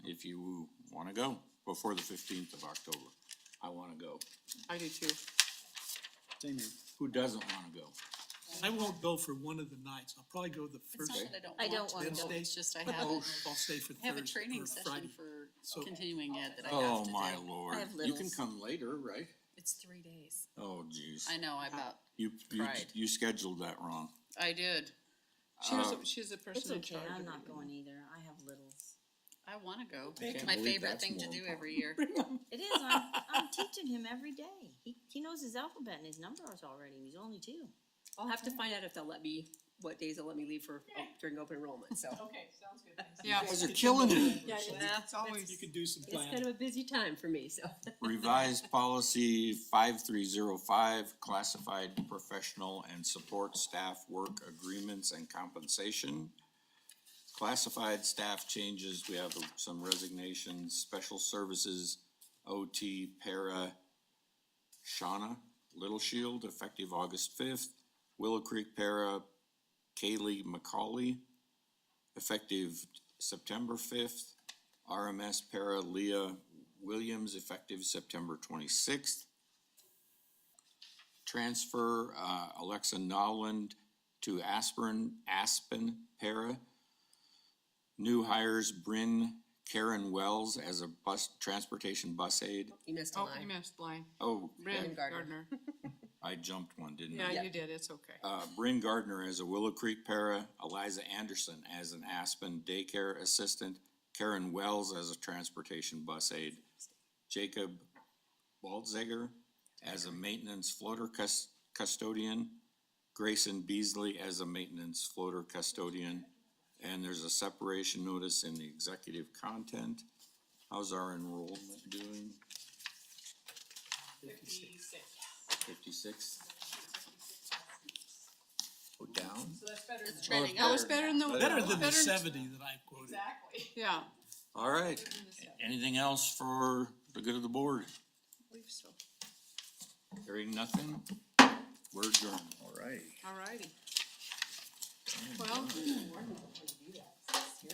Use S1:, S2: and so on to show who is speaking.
S1: if you wanna go before the fifteenth of October. I wanna go.
S2: I do too.
S3: Same here.
S1: Who doesn't wanna go?
S3: I won't go for one of the nights. I'll probably go the
S4: It's
S3: first
S4: not that
S5: I
S4: I
S5: don't
S4: don't
S5: wanna
S4: want
S5: go.
S4: to,
S3: Wednesday.
S4: it's just I
S3: but
S4: have,
S3: I'll,
S4: a-
S3: I'll stay for Thursday
S4: have a training
S3: or
S4: session
S3: Friday.
S4: for
S3: So-
S4: continuing ed that I have
S1: Oh,
S4: to
S1: my
S4: do.
S1: lord.
S5: I have
S1: You can
S5: littles.
S1: come later, right?
S4: It's three days.
S1: Oh, jeez.
S4: I know, I about,
S1: You, you,
S4: cried.
S1: you scheduled that wrong. Uh,
S4: I did.
S2: She was,
S3: Um,
S2: she's the
S5: It's
S2: person in
S5: okay,
S2: charge.
S5: I'm
S2: of
S5: not
S2: it.
S5: going either, I have littles.
S4: I wanna go.
S1: I
S4: It's
S1: can't
S4: my
S1: believe
S4: favorite
S1: that's
S4: thing to
S1: more
S4: do
S1: important.
S4: every year.
S5: It is, I'm, I'm teaching him every day, he, he knows his alphabet and his numbers already, and he's only two.
S6: I'll have to find out if they'll let me, what days they'll let me leave for, oh, during open enrollment, so.
S7: Okay, sounds good. thanks.
S2: Yeah,
S1: You guys are killing me.
S6: Yeah,
S7: It's always.
S3: You could do some
S6: It's kind
S3: planning.
S6: of a busy time for me, so.
S1: Revised policy five three zero five, classified professional and support staff work agreements and compensation. Classified staff changes, we have some resignations, special services, OT, para, Shauna Little Shield, effective August fifth, Willow Creek para, Kaylee McCauley, effective September fifth, RMS para Leah Williams, effective September twenty-sixth. Transfer, uh, Alexa Noland to Aspirin, Aspen para. New hires Bryn Karen Wells as a bus, transportation bus aide.
S6: You missed a
S2: Oh, you
S6: line.
S2: missed line.
S1: Oh,
S2: Bryn Gardner.
S6: Gardner.
S1: I jumped one, didn't I?
S2: Yeah, you did, it's okay.
S1: uh, Bryn Gardner as a Willow Creek para, Eliza Anderson as an Aspen daycare assistant, Karen Wells as a transportation bus aide, Jacob Waldziger as a maintenance floater cus- custodian, Grayson Beasley as a maintenance floater custodian, and there's a separation notice in the executive content. How's our enrollment doing?
S7: Fifty-six.
S1: Fifty-six? Go down?
S7: So that's better than.
S4: Training
S1: Oh,
S4: up.
S1: it's
S2: Better than the.
S3: Better than the seventy that I quoted.
S7: Exactly.
S2: Yeah,
S1: All right, anything else for the good of the board? Hearing nothing, we're adjourned.
S2: alrighty. Well,